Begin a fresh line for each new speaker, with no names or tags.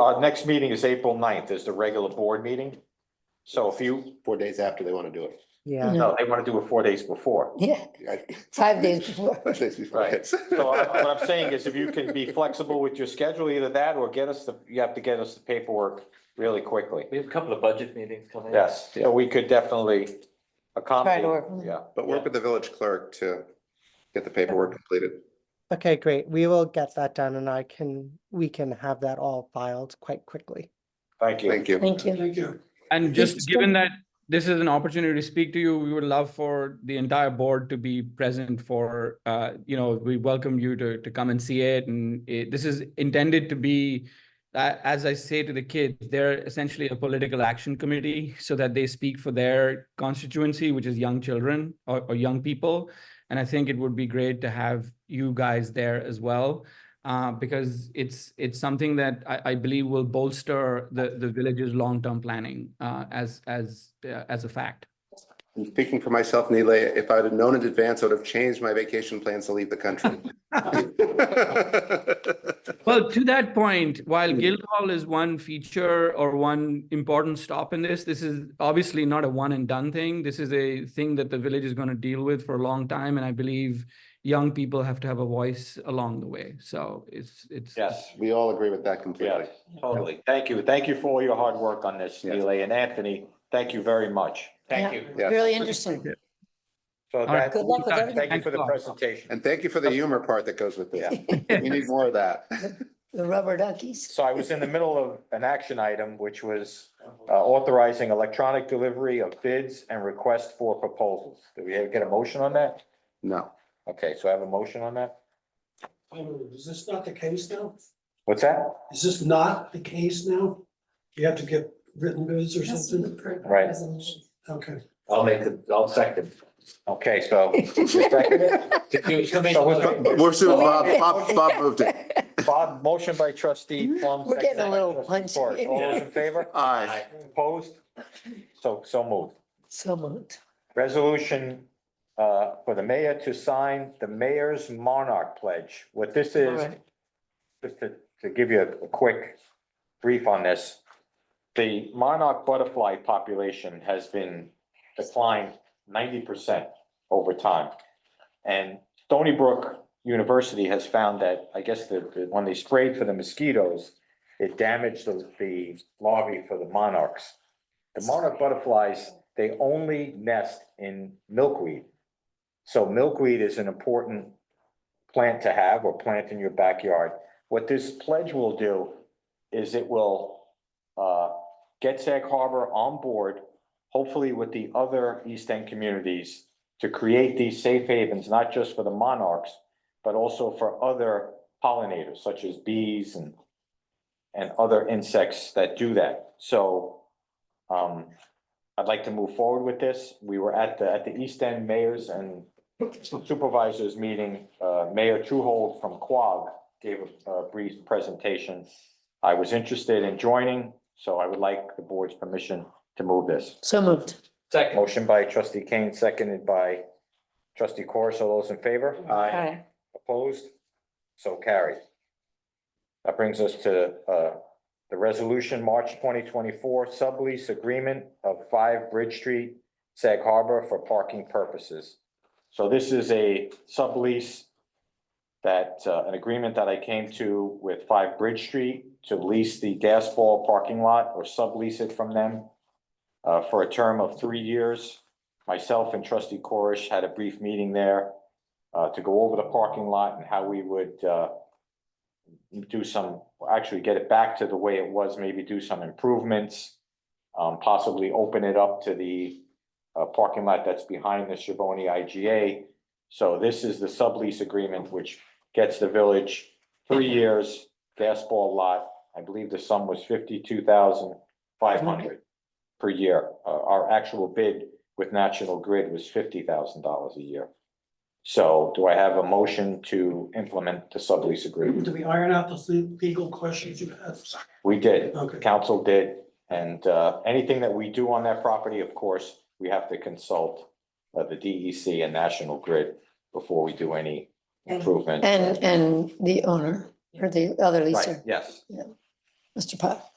Our Uh, next meeting is April 9th. is the regular board meeting. So if you,
four days after they want to do it.
Yeah,
no, they want to do it four days before.
yeah,
I-
five days before.
Five days before.
Right. So I- what I'm saying is if you can be flexible with your schedule, either that or get us the, you have to get us the paperwork really quickly.
We have a couple of budget meetings coming up.
Yes, so we could definitely
Try to
accommodate,
work.
yeah.
But work with the village clerk to get the paperwork completed.
Okay, great. We will get that done and I can, we can have that all filed quite quickly.
Thank you.
Thank you.
Thank you. Thank you.
And
Yes,
just
it's
given
good.
that this is an opportunity to speak to you, we would love for the entire board to be present for, uh, you know, we welcome you to, to come and see it. And it, this is intended to be, uh, as I say to the kids, they're essentially a political action committee so that they speak for their constituency, which is young children or, or young people. And I think it would be great to have you guys there as well uh, because it's it's something that I, I believe will bolster the the village's long term planning uh, as as uh, as a fact.
And Speaking for myself, Neela, if I'd have known in advance, I would have changed my vacation plans to leave the country.
Well, to that point, while Guildhall is one feature or one important stop in this, this is obviously not a one and done thing. This is a thing that the village is going to deal with for a long time, and I believe young people have to have a voice along the way. So it's it's
Yes,
We all agree with that completely.
yes, totally. Thank you. Thank you for all your hard work on this,
Yes.
Leland and Anthony. Thank you very much. Thank you.
Yes.
Really interesting.
So
right.
that,
Good luck with everything.
thank you for the presentation.
And thank you for the humor part that goes with this. We need more of that.
The rubber duckies.
So I was in the middle of an action item, which was uh, authorizing electronic delivery of bids and requests for proposals. Did we get a motion on that?
No.
Okay, so I have a motion on that.
I mean, Oh, Is this not the case now?
What's that?
Is this not the case now? You have to get written bids or something?
Right.
Okay.
I'll make the, I'll second.
Okay, so. So with-
But we're soon, uh, Bob, Bob, Bob moved it.
Bob, motion by trustee Plum.
Mm-hmm. We're getting a little
second by trustee Torres.
punchy.
All those in favor?
Aye.
Opposed? So, so moved.
So moved.
Resolution uh, for the mayor to sign the mayor's monarch pledge. What this is,
Alright.
just to, to give you a quick brief on this. The monarch butterfly population has been declined ninety percent over time. And Stony Brook University has found that, I guess, the, the- when they sprayed for the mosquitoes, it damaged the, the larvae for the monarchs. The monarch butterflies, they only nest in milkweed. So milkweed is an important plant to have or plant in your backyard. What this pledge will do is it will uh, get Sag Harbor on board, hopefully with the other East End communities, to create these safe havens, not just for the monarchs, but also for other pollinators such as bees and and other insects that do that. So um, I'd like to move forward with this. We were at the, at the East End Mayors and Supervisors meeting. Uh, Mayor Truhold from Quag gave a- a brief presentation. I was interested in joining, so I would like the board's permission to move this.
So moved.
Second.
Motion by trustee Kane, seconded by trustee Corus. All those in favor?
Aye.
Opposed? So carried. That brings us to uh, the resolution, March twenty twenty-four, sublease agreement of five Bridge Street, Sag Harbor for parking purposes. So this is a sublease that, uh, an agreement that I came to with five Bridge Street to lease the gas ball parking lot or sublease it from them uh, for a term of three years. Myself and trustee Corish had a brief meeting there uh, to go over the parking lot and how we would, uh, do some, actually get it back to the way it was, maybe do some improvements, um, possibly open it up to the, uh, parking lot that's behind the Shavoni IGA. So this is the sublease agreement, which gets the village three years, gas ball lot. I believe the sum was fifty-two thousand five hundred per year. Uh, our actual bid with National Grid was fifty thousand dollars a year. So do I have a motion to implement the sublease agreement?
Do we iron out those le- legal questions you have?
We did. The
Okay.
council did. And uh, anything that we do on that property, of course, we have to consult uh, the DEC and National Grid before we do any improvement.
And, and the owner or the other
Right,
leaser.
Yes.
Yeah. Mr. Powell.